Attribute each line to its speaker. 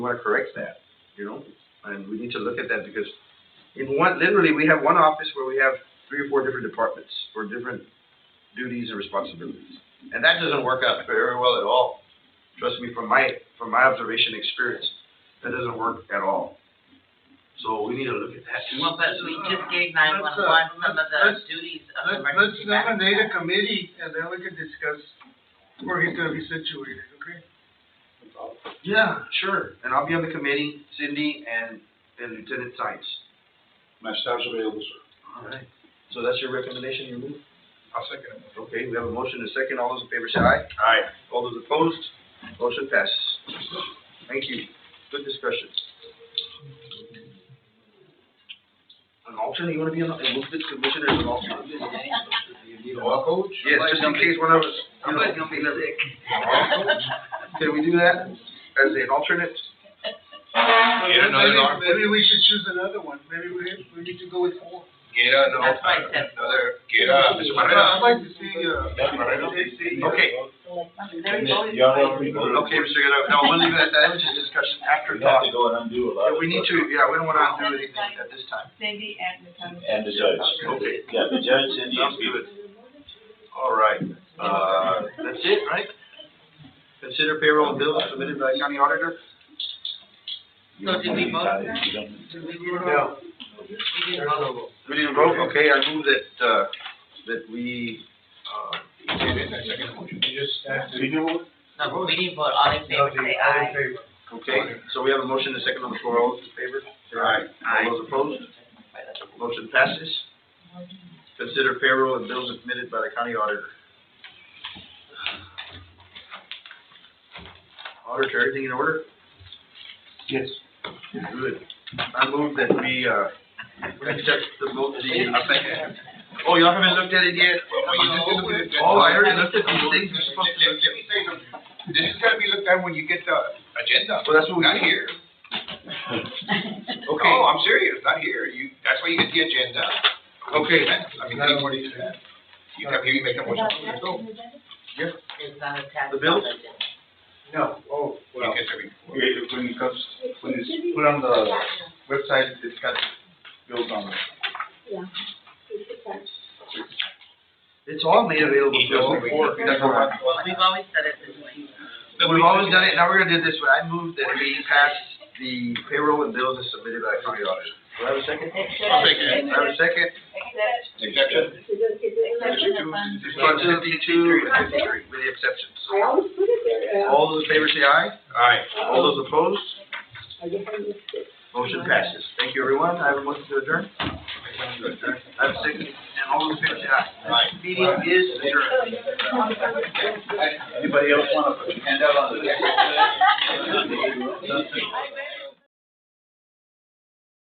Speaker 1: want to correct that, you know? And we need to look at that because in one, literally, we have one office where we have three or four different departments for different duties and responsibilities. And that doesn't work out very well at all. Trust me, from my, from my observation experience, that doesn't work at all. So we need to look at that. too.
Speaker 2: Well, but we just gave
Speaker 3: Let's, uh,
Speaker 2: nine-one-one some of
Speaker 3: let's-
Speaker 2: the duties of
Speaker 3: Let, let's
Speaker 2: emergency management.
Speaker 3: nominate a committee and then we can discuss where he's gonna be situated, okay?
Speaker 1: Yeah, sure. And I'll be on the committee, Cindy and, and Lieutenant Sines.
Speaker 4: My staff's available, sir.
Speaker 1: All right. So that's your recommendation, you move? I'll second it. Okay, we have a motion and a second. All those in favor say aye. Aye. All those opposed, motion passes. Thank you. Good discussion. An alternate, you wanna be an, and move this commissioner as an alternate?
Speaker 4: Law coach?
Speaker 1: Yes, just in case one of us. Somebody's gonna be sick. Can we do that as an alternate?
Speaker 4: Get another
Speaker 3: Maybe-
Speaker 4: doctor.
Speaker 3: Maybe we should choose another one, maybe we, we need to go with four.
Speaker 4: Get a, no,
Speaker 2: That's right, Ted.
Speaker 4: another, get a,
Speaker 3: I'd
Speaker 4: Mr. Moreno.
Speaker 3: like to see, uh,
Speaker 1: Okay,
Speaker 5: uh,
Speaker 1: Okay, Mr. Guerrero, no, we'll leave it at that, it's a discussion after thought.
Speaker 6: go and undo a
Speaker 1: If we need to, yeah, we don't wanna undo anything at this time.
Speaker 7: Cindy and the county.
Speaker 6: And the judge.
Speaker 1: Okay.
Speaker 6: Yeah, the judge and
Speaker 1: Sounds
Speaker 6: the.
Speaker 1: good. All right, uh, that's it, right? Consider payroll and bills submitted by county auditor?
Speaker 2: So did we vote? Did we do it?
Speaker 3: No.
Speaker 2: We didn't vote.
Speaker 1: We didn't vote, okay, I move that, uh, that we, uh,
Speaker 4: You just have to.
Speaker 2: No, we didn't vote, all in favor, say aye.
Speaker 1: okay, so we have a motion and a second on the floor, all those in favor?
Speaker 4: Aye.
Speaker 1: All those opposed? Motion passes. Consider payroll and bills submitted by the county auditor. Auditor, everything in order?
Speaker 4: Yes.
Speaker 1: Good. I move that we, uh, accept the vote, the, oh, y'all haven't looked at it yet? Oh, I already looked at these things, we're supposed to look
Speaker 4: Let me say something. This is gonna be looked at when you get the agenda.
Speaker 1: Well, that's what we
Speaker 4: Not
Speaker 1: got here.
Speaker 4: here.
Speaker 1: Okay.
Speaker 4: No, I'm serious, not here. You, that's why you get the agenda.
Speaker 1: Okay.
Speaker 4: I mean, that's what it is. You come here, you make a motion, let's go.
Speaker 2: It's not attached.
Speaker 1: The bills?
Speaker 5: No, oh,
Speaker 4: You
Speaker 5: well,
Speaker 4: get to be-
Speaker 5: when it comes, when it's put on the website, it's got bills on it.
Speaker 1: It's all made available to us before.
Speaker 5: That's all right.
Speaker 2: Well, we've always said it this way.
Speaker 1: We've always done it, now we're gonna do it this way, I move that we pass the payroll and bills as submitted by the county auditor. Do I have a second?
Speaker 4: I'll take it.
Speaker 1: Do I have a second?
Speaker 7: Except,
Speaker 4: Exception.
Speaker 7: except the fund.
Speaker 1: Fund fifty-two and fifty-three, with the exceptions.
Speaker 8: I always put it there, uh,
Speaker 1: All those in favor say aye,
Speaker 4: Aye.
Speaker 1: all those opposed,
Speaker 8: I guess I missed it.
Speaker 1: motion passes. Thank you, everyone, I have a motion to adjourn. I have a second, and all those in favor say aye.
Speaker 4: Aye.
Speaker 1: Meeting is adjourned.
Speaker 6: Anybody else want to put your hand out on the?